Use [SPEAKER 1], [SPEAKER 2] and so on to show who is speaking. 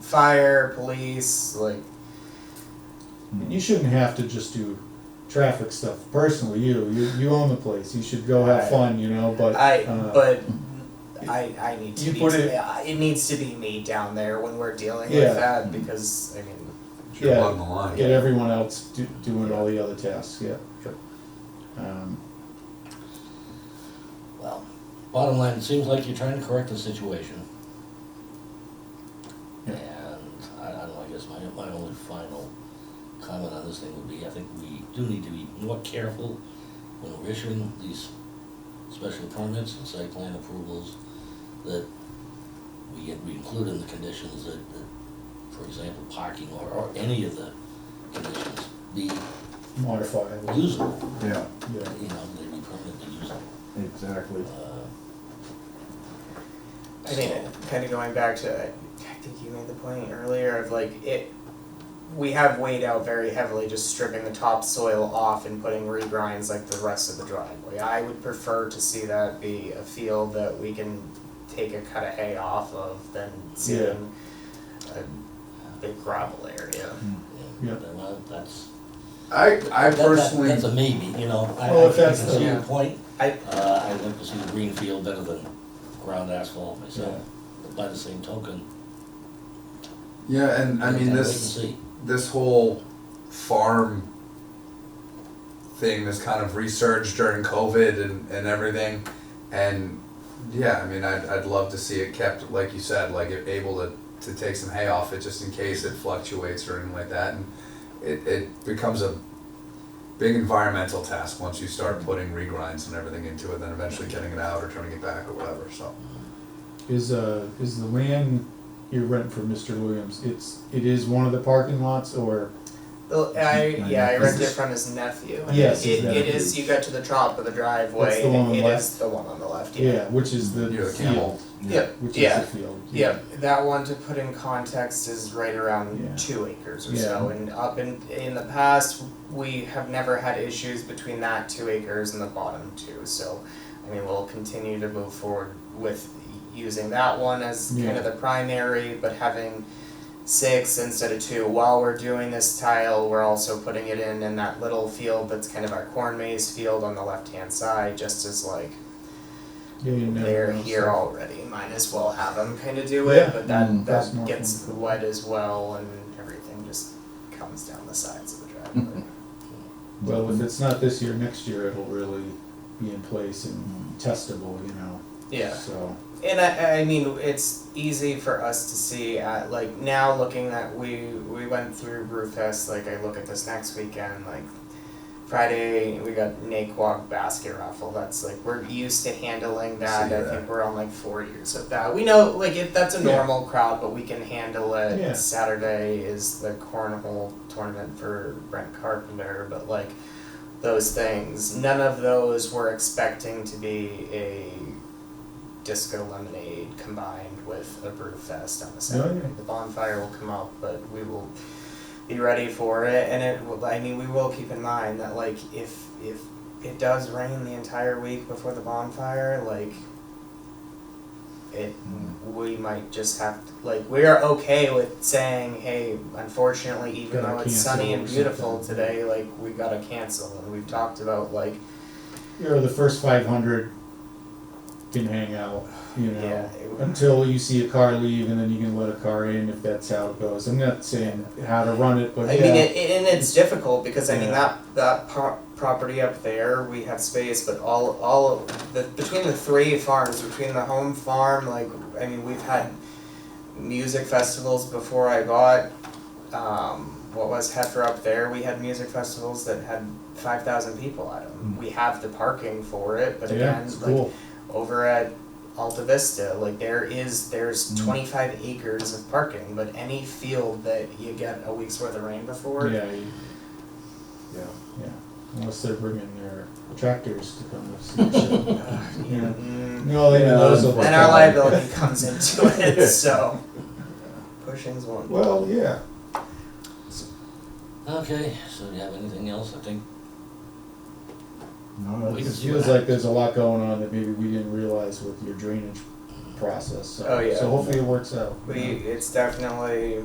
[SPEAKER 1] fire, police, like
[SPEAKER 2] You shouldn't have to just do traffic stuff personally, you, you, you own the place, you should go have fun, you know, but.
[SPEAKER 1] I,
[SPEAKER 2] uh,
[SPEAKER 1] but I, I need to
[SPEAKER 2] you
[SPEAKER 1] be,
[SPEAKER 2] put
[SPEAKER 1] it,
[SPEAKER 2] it-
[SPEAKER 1] it needs to be me down there when we're dealing
[SPEAKER 2] Yeah.
[SPEAKER 1] with that because I mean,
[SPEAKER 3] You're
[SPEAKER 2] Yeah.
[SPEAKER 3] along the line.
[SPEAKER 2] Get everyone else do, doing all the other tasks, yeah.
[SPEAKER 3] Sure.
[SPEAKER 2] Um,
[SPEAKER 1] well,
[SPEAKER 4] Bottom line, it seems like you're trying to correct the situation.
[SPEAKER 2] Yeah.
[SPEAKER 4] And I, I don't know, I guess my, my only final comment on this thing would be, I think we do need to be more careful when we're issuing these special permits and site plan approvals, that we, get- we include in the conditions that, that, for example, parking or, or any of the conditions be
[SPEAKER 2] modifiable,
[SPEAKER 4] usable,
[SPEAKER 5] Yeah,
[SPEAKER 2] yeah.
[SPEAKER 4] you know, they be permanently usable.
[SPEAKER 5] exactly.
[SPEAKER 4] Uh,
[SPEAKER 1] I mean, kind of going back to, I I think you made the point earlier of like it. We have weighed out very heavily just stripping the topsoil off and putting regrinds like the rest of the driveway. I would prefer to see that be a field that we can take a cut of hay off of than seeing a big gravel area.
[SPEAKER 2] Yeah.
[SPEAKER 4] Well, uh, that's,
[SPEAKER 5] I, I
[SPEAKER 4] that- that-
[SPEAKER 5] personally,
[SPEAKER 4] that's a maybe, you know, I,
[SPEAKER 2] Well,
[SPEAKER 4] I
[SPEAKER 2] if
[SPEAKER 4] can
[SPEAKER 2] that's the-
[SPEAKER 4] see your point.
[SPEAKER 1] I-
[SPEAKER 4] Uh, I like to see the green field better than ground asphalt myself, but by the same token.
[SPEAKER 5] yeah, and I mean,
[SPEAKER 4] gotta
[SPEAKER 5] this,
[SPEAKER 4] wait and see.
[SPEAKER 5] this whole farm thing, this kind of resurged during COVID and, and everything. And yeah, I mean, I'd, I'd love to see it kept, like you said, like it able to, to take some hay off it just in case it fluctuates or anything like that. And it, it becomes a big environmental task once you start putting regrinds and everything into it, then eventually getting it out or turning it back or whatever. So,
[SPEAKER 2] Is, uh, is the land you rent for Mr. Williams, it's, it is one of the parking lots or,
[SPEAKER 1] Well, Oh, I, yeah, I
[SPEAKER 5] Is
[SPEAKER 1] rented it
[SPEAKER 5] this-
[SPEAKER 1] from his nephew.
[SPEAKER 2] Yes, his
[SPEAKER 1] It, it
[SPEAKER 2] nephew.
[SPEAKER 1] is, you got to the top of the driveway,
[SPEAKER 2] the one on
[SPEAKER 1] and
[SPEAKER 2] the
[SPEAKER 1] it
[SPEAKER 2] left?
[SPEAKER 1] is the one on the left,
[SPEAKER 2] yeah, which is the
[SPEAKER 5] you know, the
[SPEAKER 2] field,
[SPEAKER 5] camel.
[SPEAKER 1] Yep,
[SPEAKER 2] which is
[SPEAKER 1] yeah.
[SPEAKER 2] the field.
[SPEAKER 1] Yeah, that one to put in context is right around
[SPEAKER 2] Yeah.
[SPEAKER 1] two acres or so, and up in in the past we have never had issues between that two acres and the bottom two. So, I mean, we'll continue to move forward with using that one as kind of the primary, but having six instead of two. While we're doing this tile, we're also putting it in in that little field that's kind of our corn maze field on the left hand side, just as like
[SPEAKER 2] Yeah, you never
[SPEAKER 1] they're
[SPEAKER 2] know,
[SPEAKER 1] here
[SPEAKER 2] so-
[SPEAKER 1] already. Might as well have them kind of do
[SPEAKER 2] Yeah.
[SPEAKER 1] it, but that
[SPEAKER 6] Mm.
[SPEAKER 2] That's more
[SPEAKER 1] that gets
[SPEAKER 2] fun.
[SPEAKER 1] wet as well, and everything just comes down the sides of the driveway.
[SPEAKER 2] Well, if it's not this year, next year it'll really be in place and testable, you know,
[SPEAKER 1] Mm-hmm. yeah,
[SPEAKER 2] so.
[SPEAKER 1] and I, I mean it's easy for us to see at like now looking that we we went through Brewfest. Like I look at this next weekend, like. Friday we got Naquag basket raffle. That's like we're used to handling that.
[SPEAKER 5] See
[SPEAKER 1] I
[SPEAKER 5] that.
[SPEAKER 1] think we're on like four years of that. We know like it, that's a
[SPEAKER 2] Yeah.
[SPEAKER 1] normal crowd, but we can handle it.
[SPEAKER 2] Yeah.
[SPEAKER 1] Saturday is the cornhole tournament for Brent Carpenter, but like those things, none of those were expecting to be a disco lemonade combined with a brew fest on the Saturday.
[SPEAKER 2] Oh, yeah.
[SPEAKER 1] The bonfire will come up, but we will be ready for it and it will I mean we will keep in mind that like if if it does rain the entire week before the bonfire like it
[SPEAKER 2] Hmm.
[SPEAKER 1] we might just have to, like we are okay with saying hey unfortunately even
[SPEAKER 2] Gotta
[SPEAKER 1] though it's
[SPEAKER 2] cancel
[SPEAKER 1] sunny
[SPEAKER 2] or
[SPEAKER 1] and beautiful
[SPEAKER 2] something.
[SPEAKER 1] today like we gotta cancel and we've talked about like
[SPEAKER 2] you know, the first five hundred can hang out, you know,
[SPEAKER 1] Yeah, it would-
[SPEAKER 2] until you see a car leave, and then you can let a car in if that's how it goes. I'm not saying how to run it, but
[SPEAKER 1] I
[SPEAKER 2] yeah,
[SPEAKER 1] mean, it, and it's difficult because I mean
[SPEAKER 2] Yeah.
[SPEAKER 1] that that pro- property up there, we have space, but all all of the between the three farms, between the home farm, like I mean, we've had music festivals before I got. Um, what was Heifer up there? We had music festivals that had five thousand people at them. We have the parking for it, but
[SPEAKER 2] Hmm. yeah,
[SPEAKER 1] again,
[SPEAKER 2] it's
[SPEAKER 1] like
[SPEAKER 2] cool.
[SPEAKER 1] over at Alta Vista, like there is there's
[SPEAKER 6] Mm.
[SPEAKER 1] 25 acres of parking, but any field that you get a week's worth of rain before,
[SPEAKER 2] yeah, you-
[SPEAKER 5] Yeah.
[SPEAKER 2] yeah. Unless they're bringing their tractors to come with some shit.
[SPEAKER 1] uh,
[SPEAKER 2] Yeah.
[SPEAKER 1] you know, mm,
[SPEAKER 2] No, they
[SPEAKER 6] Yeah,
[SPEAKER 2] those will.
[SPEAKER 1] then
[SPEAKER 6] And
[SPEAKER 1] our
[SPEAKER 6] Okay.
[SPEAKER 1] liability comes into it. So pushing's one.
[SPEAKER 2] Well, yeah.
[SPEAKER 4] Okay, so do you have anything else? I think
[SPEAKER 6] No,
[SPEAKER 2] It
[SPEAKER 4] we can
[SPEAKER 6] that's-
[SPEAKER 4] see what
[SPEAKER 2] feels like
[SPEAKER 4] happens.
[SPEAKER 2] there's a lot going on that maybe we didn't realize with your drainage process. So,
[SPEAKER 1] Oh, yeah.
[SPEAKER 2] So hopefully it works out.
[SPEAKER 1] We it's definitely